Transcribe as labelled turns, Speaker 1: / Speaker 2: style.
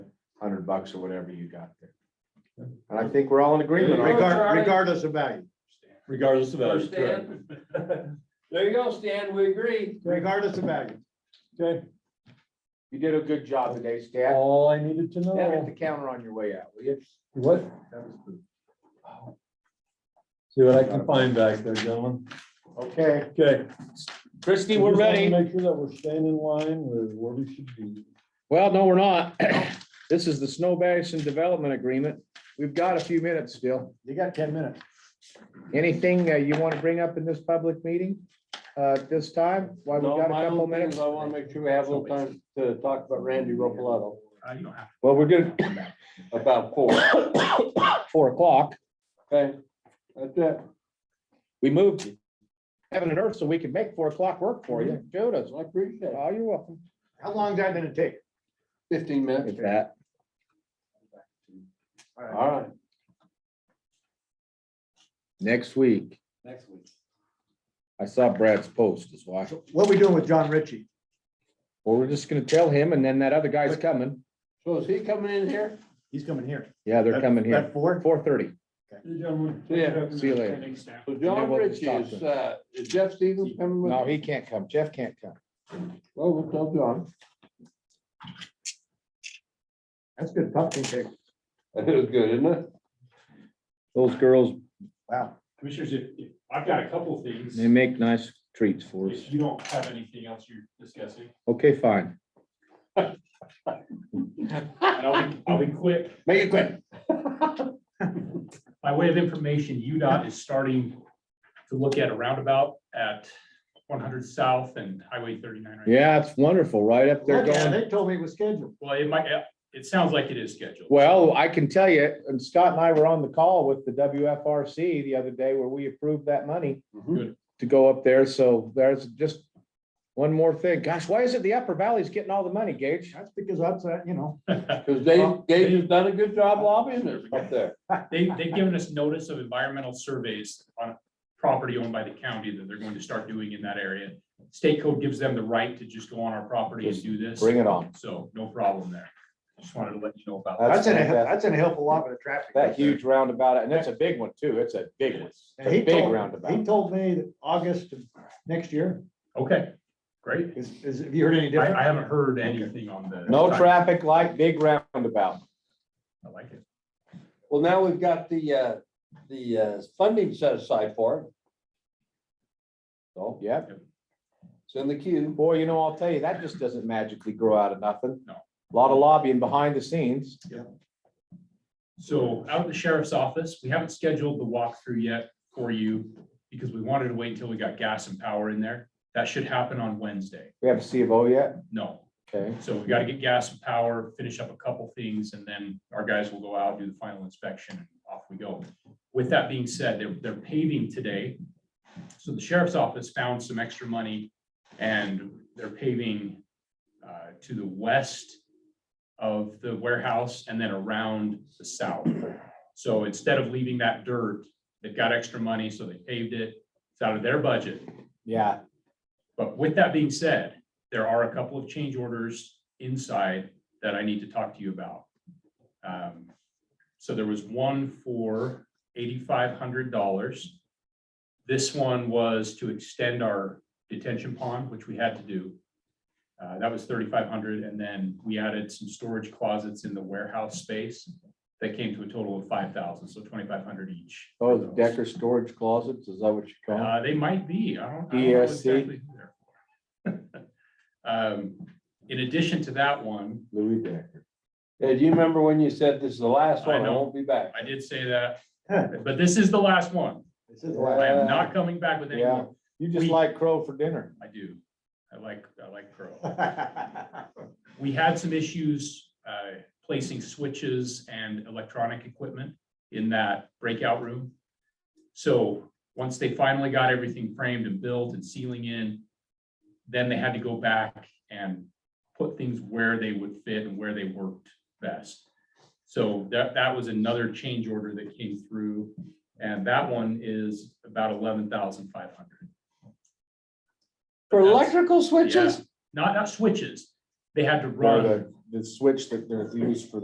Speaker 1: hundred bucks or whatever you got there. And I think we're all in agreement on it.
Speaker 2: Regard-
Speaker 3: Charlie.
Speaker 2: Regardless of value,
Speaker 4: regardless of
Speaker 3: So
Speaker 4: value. correct.
Speaker 3: Stan, There you go, Stan, we agree.
Speaker 2: regardless of value.
Speaker 4: Okay,
Speaker 1: You did a good job today, Stan.
Speaker 4: all I needed to
Speaker 1: Hit the
Speaker 4: know,
Speaker 1: counter on your way out, will you?
Speaker 4: what,
Speaker 1: That was good.
Speaker 4: see what I can find back there, gentlemen.
Speaker 1: Okay,
Speaker 4: Okay.
Speaker 1: Christie,
Speaker 4: I
Speaker 1: we're
Speaker 4: just wanna
Speaker 5: ready.
Speaker 4: Make sure that we're staying in line with where we should be.
Speaker 5: Well, no, we're not. This is the Snow Basin Development Agreement. We've got a few minutes still.
Speaker 2: You got ten minutes.
Speaker 5: Anything uh, you want to bring up in this public meeting uh, at this time? Why we've
Speaker 3: No,
Speaker 5: got a
Speaker 3: my
Speaker 5: couple
Speaker 3: own thing is
Speaker 5: minutes?
Speaker 3: I wanna make sure we have a little time to talk about Randy Ropalato
Speaker 5: Well, we're good,
Speaker 3: about four.
Speaker 5: four o'clock.
Speaker 3: Okay, that's it.
Speaker 5: We moved heaven and earth so we can make four o'clock work for you. Showed us.
Speaker 3: I appreciate it.
Speaker 5: Oh, you're welcome.
Speaker 2: How long is that gonna take?
Speaker 3: Fifteen minutes.
Speaker 5: With that.
Speaker 3: All right.
Speaker 5: Next week,
Speaker 3: Next week.
Speaker 5: I saw Brad's post as well.
Speaker 2: So What we doing with John Ritchie?
Speaker 5: Well, we're just gonna tell him and then that other guy's coming.
Speaker 3: So is he coming in here?
Speaker 2: He's coming here.
Speaker 5: Yeah, they're coming here.
Speaker 2: At four?
Speaker 5: Four thirty.
Speaker 3: Yeah.
Speaker 5: See you later.
Speaker 3: So
Speaker 5: then
Speaker 3: John
Speaker 5: we'll
Speaker 3: Ritchie
Speaker 5: talk
Speaker 3: is,
Speaker 5: to
Speaker 3: uh, is Jeff Stevens coming with?
Speaker 5: No, he can't come. Jeff can't come.
Speaker 3: Well, we'll tell John.
Speaker 2: That's good pumpkin cake.
Speaker 3: That is good, isn't it?
Speaker 5: Those girls,
Speaker 2: Wow.
Speaker 6: Commissioners, if, if, I've got a couple of things,
Speaker 5: they make nice treats for us.
Speaker 6: if you don't have anything else you're discussing,
Speaker 5: Okay, fine.
Speaker 6: and I'll be, I'll be quick.
Speaker 3: Make it quick.
Speaker 6: By way of information, UDOT is starting to look at a roundabout at one hundred south and Highway thirty-nine. right?
Speaker 5: Yeah, it's wonderful, right up there
Speaker 2: Yeah,
Speaker 5: going.
Speaker 2: They told me it was scheduled.
Speaker 6: Well, it might, it sounds like it is scheduled.
Speaker 5: Well, I can tell you, and Scott and I were on the call with the WFRC the other day where we approved that money
Speaker 6: Good.
Speaker 5: to go up there. So there's just one more thing. Gosh, why is it the Upper Valley's getting all the money, Gage?
Speaker 2: That's because that's, uh, you know,
Speaker 3: Cause Dave, Dave has done a good job lobbying us up there.
Speaker 6: They, they've given us notice of environmental surveys on property owned by the county that they're going to start doing in that area. State code gives them the right to just go on our property and do this,
Speaker 5: Bring it on.
Speaker 6: so no problem there. Just wanted to let you know about that.
Speaker 2: that's
Speaker 1: That's
Speaker 2: gonna,
Speaker 1: fantastic.
Speaker 2: that's gonna help a lot with the traffic.
Speaker 1: That huge roundabout, and it's a big one too. It's a big one. It's
Speaker 2: And
Speaker 1: a
Speaker 2: he
Speaker 1: big
Speaker 2: told- He
Speaker 1: roundabout.
Speaker 2: told me that August of next year
Speaker 6: Okay, great.
Speaker 2: is, is, have you heard any
Speaker 6: I,
Speaker 2: different?
Speaker 6: I haven't heard anything on the.
Speaker 1: No traffic light, big roundabout.
Speaker 6: I like it.
Speaker 3: Well, now we've got the, uh, the, uh, funding set aside for it. So
Speaker 1: Yep.
Speaker 3: it's in the queue.
Speaker 1: Oh, Boy, you know, I'll tell you, that just doesn't magically grow out of nothing.
Speaker 6: No.
Speaker 1: A Lot of lobbying behind the scenes.
Speaker 6: So out at the sheriff's office, we haven't scheduled the walkthrough yet for you because we wanted to wait until we got gas and power in there. That should happen on Wednesday.
Speaker 1: We have a C of O yet?
Speaker 6: No,
Speaker 1: Okay.
Speaker 6: so we gotta get gas and power, finish up a couple things, and then our guys will go out, do the final inspection, and off we go. With that being said, they're, they're paving today. So the sheriff's office found some extra money and they're paving uh, to the west of the warehouse and then around the south. So instead of leaving that dirt, they've got extra money, so they paved it. It's out of their budget.
Speaker 1: Yeah,
Speaker 6: But with that being said, there are a couple of change orders inside that I need to talk to you about. Um, So there was one for eighty-five hundred dollars. This one was to extend our detention pond, which we had to do. Uh, That was thirty-five hundred, dollars and then we added some storage closets in the warehouse space that came to a total of five thousand, dollars so twenty-five hundred dollars each. for
Speaker 1: oh, the
Speaker 6: those.
Speaker 1: Decker storage closets, is that what you call them?
Speaker 6: Uh, they might be, I don't. I don't know
Speaker 1: ESC.
Speaker 6: exactly who they're for. Um, in addition to that one,
Speaker 1: Louis Decker.
Speaker 3: Yeah, do you remember when you said this is the last
Speaker 6: I
Speaker 3: one? I
Speaker 6: know.
Speaker 3: won't be back.
Speaker 6: I did say that, but this is the last one.
Speaker 2: This is
Speaker 6: I
Speaker 2: why-
Speaker 3: Uh,
Speaker 6: am not coming back with any more.
Speaker 1: You just
Speaker 6: We-
Speaker 1: like crow for dinner.
Speaker 6: I do. I like, I like Crow. We had some issues, uh, placing switches and electronic equipment in that breakout room. So once they finally got everything framed and built and sealing in, then they had to go back and put things where they would fit and where they worked best. So that, that was another change order that came through, and that one is about eleven thousand five hundred.
Speaker 3: For electrical
Speaker 6: Yeah,
Speaker 3: switches?
Speaker 6: Not, not switches. They had to
Speaker 1: Or
Speaker 6: run.
Speaker 1: the, the switch that they're used for